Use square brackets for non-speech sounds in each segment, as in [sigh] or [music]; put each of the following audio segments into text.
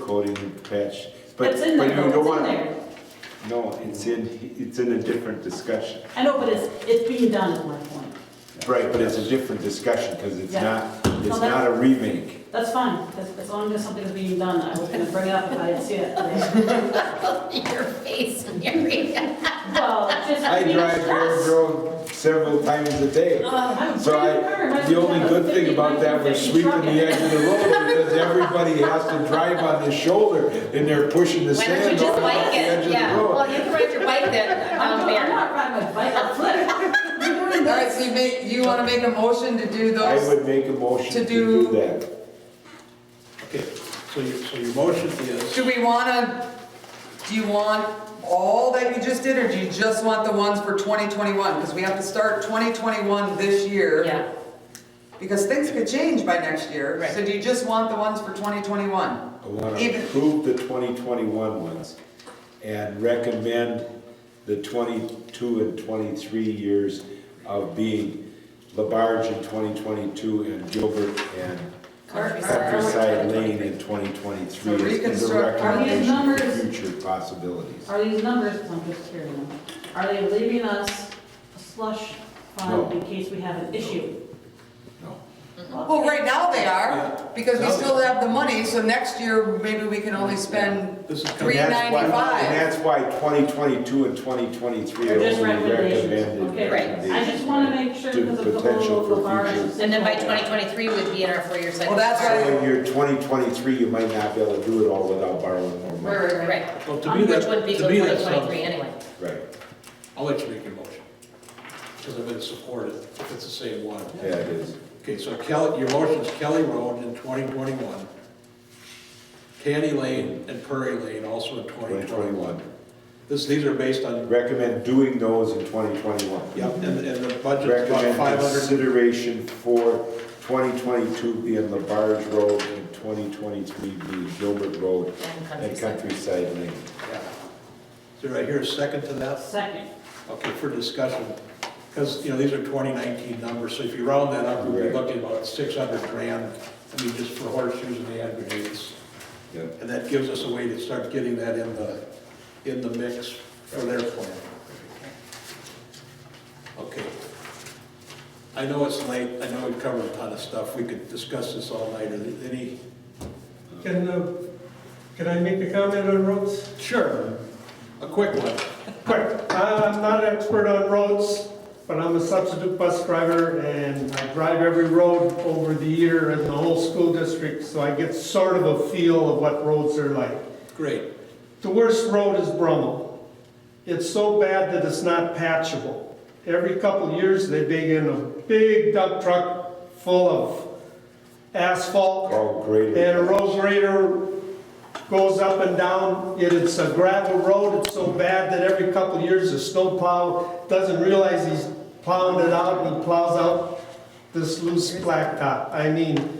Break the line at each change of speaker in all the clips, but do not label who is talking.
coating and patch. But
That's in
but
there,
you don't
though, it's in
want-
there.
No, it's in, it's in a different discussion.
I know, but it's, it's being done at one point.
Right, but it's a different discussion, because it's
Yeah.
not,
No,
it's
that's-
not a remake.
That's fine, as, as long as something's being done, I was gonna bring it up if I didn't see it. [laughs] today.
Your face, Mary.
Well, just.
I
being [laughs]
drive Bear
stressed.
Road several times a day.
Uh, I'm
So
pretty sure
I,
my
the only good
husband has a
thing about that was
50,
sweeping the edge of the road, because everybody has to drive on their shoulder, and they're pushing the
Why don't you
sand
just
over the
bike
edge
it?
of
Yeah,
the
well,
road.
you can ride your bike then
I'm [laughs] I'm [laughs]
down there.
not riding my bike, I'll flip.
All right, so you make, you wanna make a motion to do
I
those?
would make a motion
To
to do
do-
that.
Okay, so your, so your motion is,
Do we wanna, do you want all that you just did, or do you just want the ones for 2021? Because we have to start 2021 this year.
Yeah,
Because things could change by next year, so
Right.
do you just want the ones for 2021?
I want to
Even-
approve the 2021 ones and recommend the 22 and 23 years of being Labarge in 2022 and Gilbert and Countryside Lane in 2023.
So
Is a
reconstruct-
are these
recommendation for
numbers-
future possibilities.
Are these numbers, I'm just hearing them, are they leaving us a slush fund
No.
in case we have an issue? Mm-hmm. Oh,
No.
Well, right now they are, because we
Now they
still have the money, so next year, maybe we can only spend
this is
And
coming,
Three.
that's why-
395.
And that's why 2022 and 2023 are
They're just
only
recommendations,
recommended.
okay,
Right.
I just wanna make sure
To
because of the
potential
whole
for
Labarge.
future.
and then by 2023 would be in our four-year cycle.
Well, that's
So in your 2023, you might not be able to do it all without borrowing more money.
Right, right.
well, to me,
Which would
that,
be
to
till
me, that
2023
sounds,
anyway.
Right.
I'll let you make your motion. Because I'm gonna support it, if it's the same one.
Yeah, it is.
Okay, so Kelly, your motion's Kelly Road in 2021, Canny Lane and Prairie Lane also in 2021.
2021.
This, these are based on,
Recommend doing those in 2021.
yep, and, and the budget's about
Recommend
500.
consideration for 2022 being LaBarge Road and 2023 being Gilbert Road
And
and
countryside.
Countryside Lane.
Yeah. So do I hear a second to that?
Second,
Okay, for discussion, because, you know, these are 2019 numbers, so if you round that up, we'd be
Right.
looking at about 600 grand, I mean, just for horseshoes and hand grenades.
Yeah.
And that gives us a way to start getting that in the, in the mix for their plan. Okay. I know it's late, I know we've covered a ton of stuff, we could discuss this all night, Are there any?
Can, uh, can I make a comment on roads?
Sure. A quick one.
Quick, I'm not an expert on roads, but I'm a substitute bus driver and I drive every road over the year in the whole school district, so I get sort of a feel of what roads are like.
Great.
The worst road is Brummel. It's so bad that it's not patchable. Every couple of years, they dig in a big dump truck full of asphalt
All greater.
and a road grader goes up and down, It is a gravel road, it's so bad that every couple of years, the snow plow doesn't realize he's plowing it out, and plows out this loose blacktop. I mean,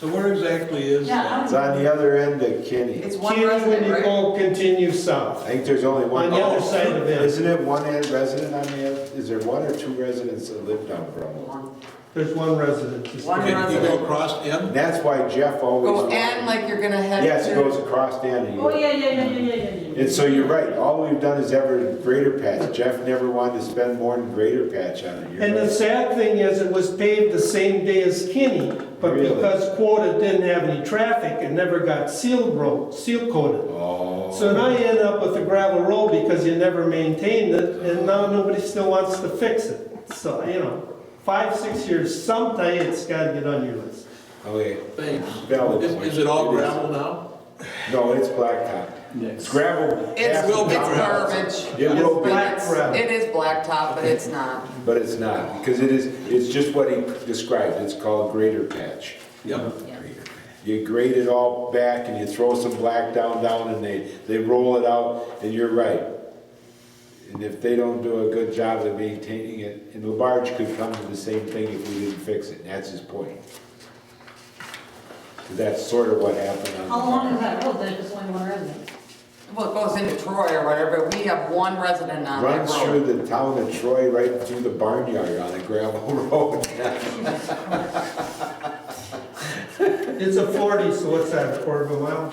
So where exactly is
yeah,
that?
It's on the other end of Kinney.
it's one
Kenny, when
resident,
you
right?
go continue
I
south,
think there's only
on
one.
the other side of it,
Isn't it one end resident on the other? Is there one or two residents that live down Brumwell?
Oh,
there's one resident.
One
Okay, you
resident.
go across in?
And that's why Jeff always.
Go Oh, and like you're gonna head to.
Yes, it goes across the end.
oh, yeah, yeah, yeah, yeah, yeah, yeah, yeah.
And so you're right, all we've done is ever greater patch. Jeff never wanted to spend more than greater patch on it. You're
And the
right.
sad thing is, it was paved the same day as Kinney, but
Really?
because quota didn't have any traffic, it never got seal road, seal coated.
Oh.
So now you end up with a gravel road because you never maintained it, and now nobody still wants to fix it. So, you know, five, six years, sometime it's gotta get on your list.
Okay,
Thanks.
Valid
Is
point.
is it all
It is.
gravel now?
no, it's blacktop. It's gravel.
It's,
half
it's
the time.
garbage.
It will
It's
be,
black gravel.
It is blacktop, but it's not.
but it's not, because it is, it's just what he described, it's called greater patch.
Yep.
You grade it all back and you throw some black down, down, and they, they roll it out, and you're right. And if they don't do a good job of maintaining it, and LaBarge could come to the same thing if we didn't fix it, and that's his point. 'Cause that's sort of what happened on.
How long is
LaBarge.
that road, there's just only one resident?
Well, it goes into Troy or whatever, but we have one resident on that
Runs through
road.
the town of Troy, right through the [laughs] barnyard on a gravel road.
It's a forty, so what's that, a quarter of a mile?